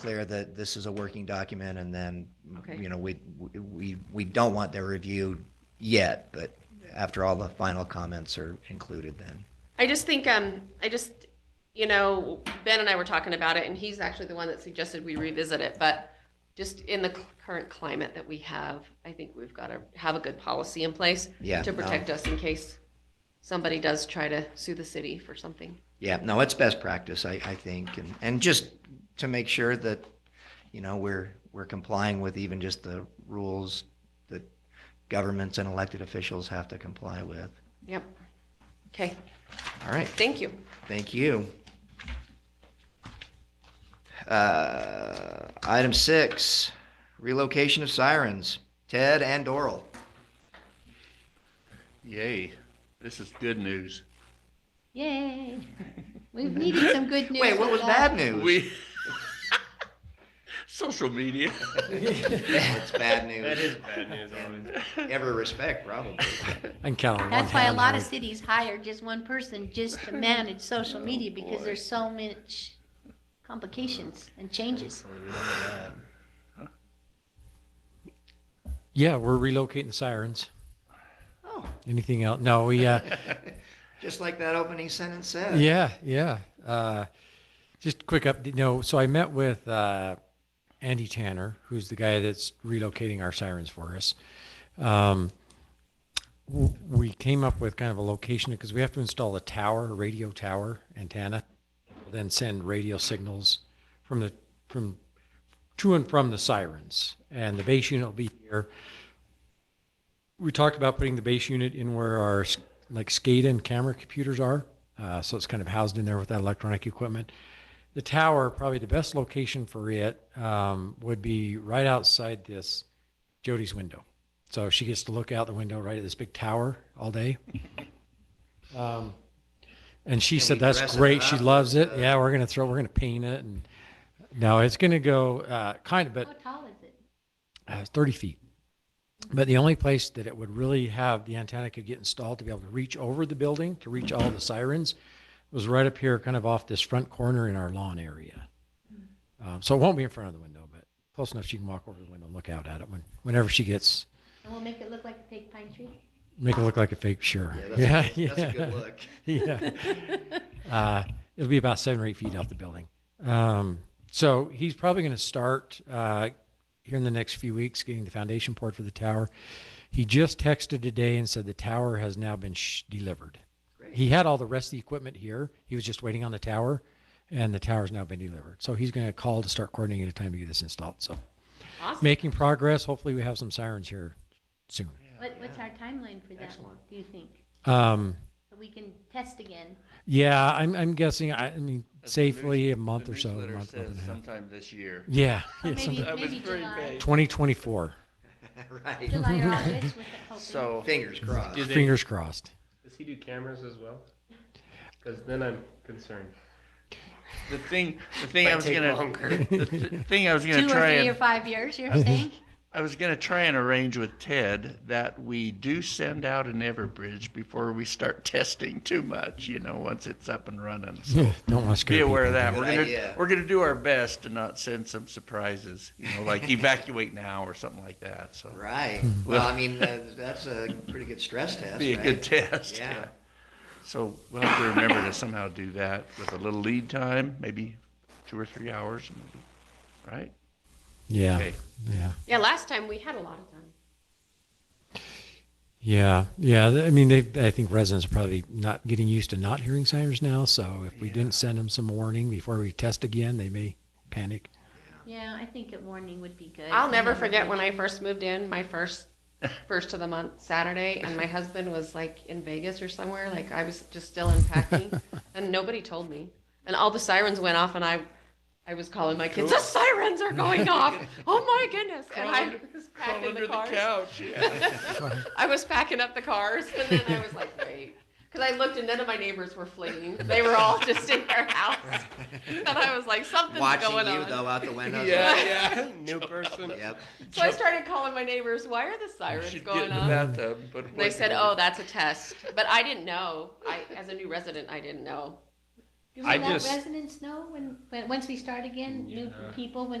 clear that this is a working document and then, Okay. you know, we, we, we don't want their review yet, but after all the final comments are included then. I just think, um, I just, you know, Ben and I were talking about it, and he's actually the one that suggested we revisit it, but just in the cl- current climate that we have, I think we've got to have a good policy in place Yeah, to no. protect us in case somebody does try to sue the city for something. Yeah, no, it's best practice, I, I think, and, and just to make sure that, you know, we're, we're complying with even just the rules that governments and elected officials have to comply with. Yep. Okay, All right, thank you. thank you. Uh, item six, relocation of sirens, Ted and Doral. Yay, this is good news. Yay. We've needed some good news. Wait, what was for bad news? We, social media. It's bad That news. is bad news. Always. Every respect, probably. I can count on one That's why a hand lot of how- cities hire just one person just to manage social media because there's so much complications and changes. Yeah, we're relocating sirens. Oh. Anything else? No, we, uh, Just like that opening sentence said. yeah, yeah. Uh, just quick up, you know, so I met with, uh, Andy Tanner, who's the guy that's relocating our sirens for us. Um, w- we came up with kind of a location because we have to install a tower, a radio tower antenna, then send radio signals from the, from, to and from the sirens. And the base unit will be here. we talked about putting the base unit in where our like SCADA and camera computers are. Uh, so it's kind of housed in there with that electronic equipment. The tower, probably the best location for it, um, would be right outside this Jody's window. So she gets to look out the window right at this big tower all day. Um, and she Can said we that's dress it great. She up? loves it. Uh, yeah, we're gonna throw, we're gonna paint it, and no, it's gonna go uh, kind of, but How tall is it? uh, 30 feet. But the only place that it would really have the antenna could get installed to be able to reach over the building to reach all the sirens was right up here, kind of off this front corner in our lawn area. Um, so it won't be in front of the window, but close enough she can walk over the window and look out at it when, whenever she gets, And we'll make it look like a big pine tree. make it look like a fake, sure. Yeah, that's, a- that's a good yeah. look. yeah. Uh, it'll be about seven or eight feet off the building. Um, so he's probably going to start uh, here in the next few weeks getting the foundation poured for the tower. He just texted today and said the tower has now been sh- delivered. He had all the rest of the equipment here. He was just waiting on the tower, and the tower's now been delivered. So he's going to call to start coordinating a time to get this installed. So Awesome. making progress. Hopefully, we have some sirens here soon. What, what's our timeline for that, Excellent. do you think? Um, So we can test again. yeah, I'm, I'm guessing. I, I mean, That's the news- safely a month the or so. A newsletter month, month and says a half. Sometime this year. Or Yeah. yeah, maybe, something- That was maybe very July, vague. 2024. Right. July or August with the hoping. So, Fingers crossed. Did they- Fingers crossed. Does he do cameras as well? Because then I'm concerned. the thing, the thing Might I was take gonna, longer. the th- thing I was Two gonna or try three or and, five years, you're saying? I was gonna try and arrange with Ted that we do send out an Everbridge before we start testing too much, you know, once it's up and running. So Don't want to scare Be aware of that. Good We're gonna idea. we're gonna do our best to not send some surprises, you know, like evacuate now or something like that. So Right. Well, I mean, uh, that's a pretty good stress test. be a right? good test. Yeah. So we'll have to remember to somehow do that with a little lead time, maybe two or three hours, maybe. Right? Yeah, Okay. yeah, Yeah, last time we had a lot of time. yeah, yeah. Th- I mean, they, I think residents are probably not getting used to not hearing sirens now. So if we didn't send them some warning before we test again, they may panic. Yeah, I think a warning would be good. I'll never forget when I first moved in, my first, first of the month Saturday, and my husband was like in Vegas or somewhere, like I was just still unpacking, and nobody told me. And all the sirens went off, and I, I was calling my kids, the sirens are going off. Oh my goodness. And I was Crawl packing the cars. couch. Yeah. I was packing up the cars, and then I was like, wait. Because I looked, and none of my neighbors were fleeing. They were all just in their house. And I was like, something's Watching going you on. though out the window. yeah, New person. Yep. So I started calling my neighbors, why are the yeah. sirens Should get in going the on? bathtub. put a They blanket said, over "Oh, that's a test," but I didn't know. I, as a new resident, I didn't know. Do I we let just- residents know when, when, once we start again, new Yeah. people, when